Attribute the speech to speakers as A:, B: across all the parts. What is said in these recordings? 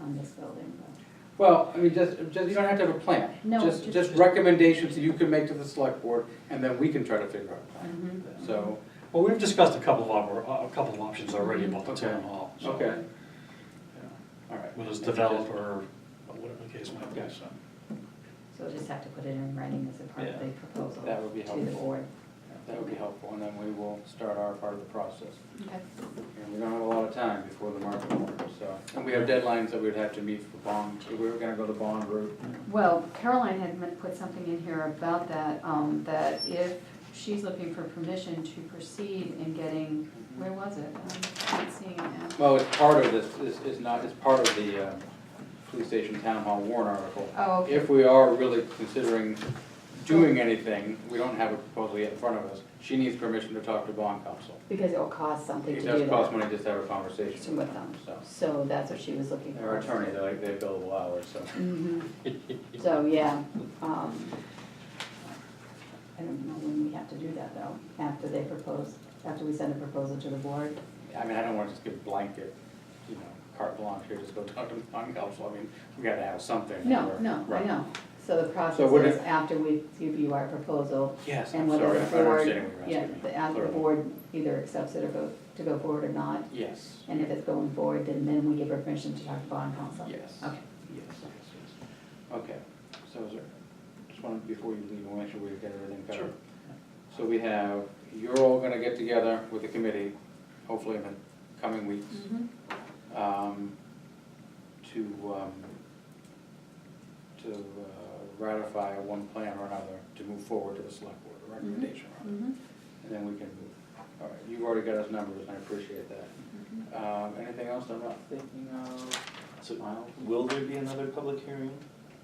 A: on this building, but
B: Well, I mean, just, just, you don't have to have a plan.
A: No,
B: Just,
A: just-
B: just recommendations that you can make to the select board, and then we can try to figure out a plan.
A: mhm.
B: So,
C: Well, we've discussed a couple of, op- a couple of options already about the
B: Okay.
C: town hall. so,
B: okay,
C: yeah,
B: all right.
C: Whether it's developer or whatever the case might be,
B: Okay.
C: so.
A: So we'll just have to put it in writing as a part of the
C: Yeah.
A: proposal
B: That would be
A: to the
B: helpful.
A: board.
B: That would be helpful, and then we will start our part of the process.
A: Okay.
B: And we don't have a lot of time before the market warrant, so. And we have deadlines that we'd have to meet for bond, we were gonna go the bond route.
A: Well, Caroline had meant- put something in here about that, um, that if she's looking for permission to proceed in getting, where was it? Um, Not seeing it now.
B: Well, it's part of this, is, is not, it's part of the, um, police station town hall warrant article.
A: Oh, okay.
B: If we are really considering doing anything, we don't have a proposal yet in front of us, she needs permission to talk to bond counsel.
D: Because it'll cost something to
B: It
D: do that.
B: does cost money just to have a conversation
D: With them,
B: so.
D: so that's what she was looking for.
B: Our attorney, they like, they bill the hours, so.
D: Mhm. So, yeah, um, I don't know when we have to do that though, after they propose, after we send a proposal to the board.
B: I mean, I don't wanna just give blanket, you know, carte blanche here, just go talk to bond counsel, I mean, we gotta have something.
D: No,
B: or-
D: no, I
B: Right.
D: know. So the
B: So what
D: process is
B: if-
D: after we give you our proposal
B: Yes, I'm
D: and whether
B: sorry,
D: the
B: I'm not understanding
D: board,
B: what you're
D: yeah,
B: asking me.
D: the, after the
B: Clearly.
D: board either accepts it or go, to go forward or not.
B: Yes,
D: And if it's going forward, then, then we give her permission to talk to bond counsel.
B: yes.
D: Okay.
B: Yes, yes, yes. Okay, so is there, just wanted, before you leave, I want to make sure we get everything covered.
C: Sure.
B: So we have, you're all gonna get together with the committee, hopefully in the coming weeks,
A: Mhm.
B: um, to, um, to uh, ratify one plan or another to move forward to the select board, a recommendation, rather.
A: Mhm.
B: and then we can move. All right, you've already got us numbers, and I appreciate that.
A: Mhm.
B: Um, anything else I'm not thinking of?
E: So
B: Miles?
E: will there be another public hearing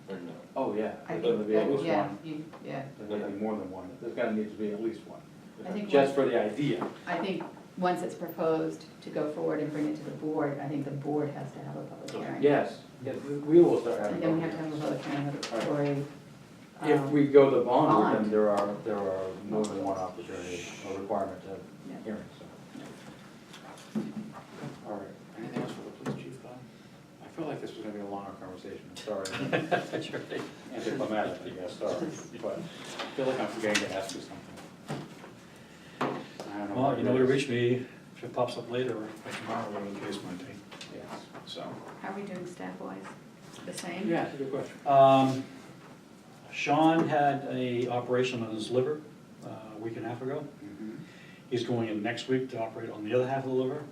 E: or no?
B: Oh, yeah.
A: I think
B: There's gonna be at
A: that-
B: least
A: Yeah,
B: one.
A: you- yeah,
B: There's gonna be more than one. There's gonna need to be at least one,
A: I think,
B: just
A: once-
B: for the idea.
A: I think, once it's proposed to go forward and bring it to the board, I think the board has to have a public
C: Okay.
A: hearing.
B: Yes, yes, we- we will start having.
A: And then we have to have a public hearing for a.
B: If
A: um,
B: we go the bond route, then
A: Bond.
B: there are, there are more than one opportunity or requirement to
A: Yeah.
B: hearing, so. All right, anything else for the police chief, Bob? I feel like this was gonna be a longer conversation, I'm sorry,
C: That's right.
B: anticlimactic, I guess, sorry, but I feel like I'm forgetting to ask you something. I don't know.
C: Well, you know where to
B: it is.
C: reach me if it pops up later or by tomorrow, whatever the case might be,
B: Yes.
C: so.
A: How are we doing staff-wise? The same?
B: Yeah, it's a good question.
C: Um, Sean had a operation on his liver uh, a week and a half ago.
B: Mm-hmm.
C: He's going in next week to operate on the other half of the liver.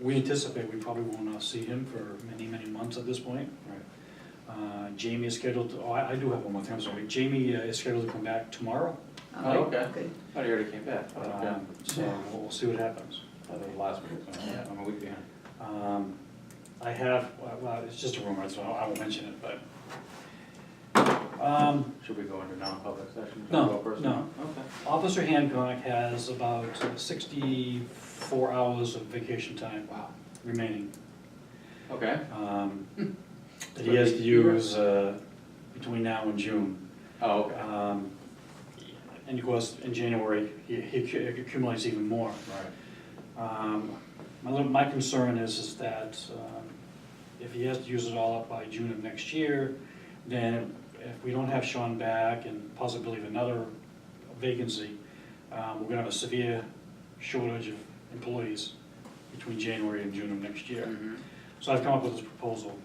C: We anticipate we probably will not see him for many, many months at this point.
B: Right.
C: Uh, Jamie is scheduled, to- oh, I I do have one more thing, I'm sorry. Jamie uh, is scheduled to come back tomorrow.
B: Oh, okay.
A: Good.
B: Oh, you already came back. Okay.
C: Um, So we'll we'll see what happens.
B: Oh, that was last week, so I'm a week behind.
C: Um, I have, well, well, it's just a rumor, so I won't mention it, but. um,
B: Should we go into non-public session?
C: No,
B: Go first?
C: no.
B: Okay.
C: Officer Hancock has about sixty-four hours of vacation time
B: Wow.
C: remaining.
B: Okay.
C: um, That he has to use uh, between now and June.
B: Oh, okay.
C: Um, And of course, in January, he he accu- accumulates even more.
B: Right.
C: Um, My little, my concern is, is that um, if he has to use it all up by June of next year, then if we don't have Sean back and possibly of another vacancy, um, we're gonna have a severe shortage of employees between January and June of next year.
B: Mhm.
C: So I've come up with this proposal.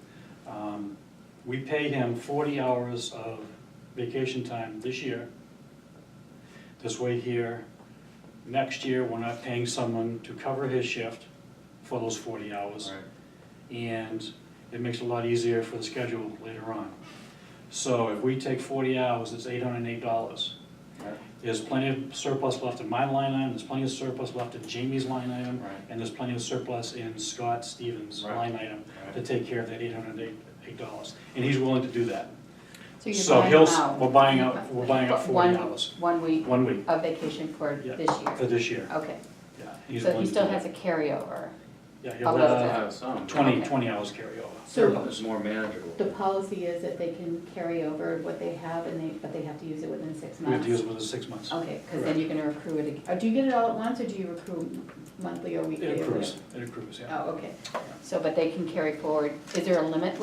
C: Um, We pay him forty hours of vacation time this year. This way here, next year, we're not paying someone to cover his shift for those forty hours.
B: Right.
C: And it makes it a lot easier for the schedule later on. So if we take forty hours, it's eight hundred and eight dollars.
B: Right.
C: There's plenty of surplus left in my line item, there's plenty of surplus left in Jamie's line item,
B: Right.
C: and there's plenty of surplus in Scott Stevens'
B: Right.
C: line item to
B: Right.
C: take care of that eight hundred and eight dollars, and he's willing to do that.
D: you're
C: So
D: buying
C: he'll,
D: them
C: s-
D: out.
C: we're buying out, we're buying out
D: But one-
C: forty dollars,
D: One week
C: one week,
D: of vacation for
C: Yeah.
D: this year.
C: for this year,
D: Okay,
C: yeah. he's
D: so
C: willing
D: he
C: to
D: still
C: do
D: has a
C: that.
D: carryover.
C: Yeah,
D: How
C: he'll
D: much
B: I'll
D: is
C: have
B: have some.
C: twenty,
D: Okay.
C: twenty hours carryover.
D: So
B: It's more manageable.
D: the policy is that they can carry over what they have and they, but they have to use it within six
C: We have
D: months?
C: to use it within six months.
D: Okay, because then you're gonna accrue it, ag- uh, do you get it all at once or do you accrue monthly or weekly
C: It
D: or whatever?
C: accrues, it accrues, yeah.
D: Oh, okay, so, but they can carry forward, is there a limit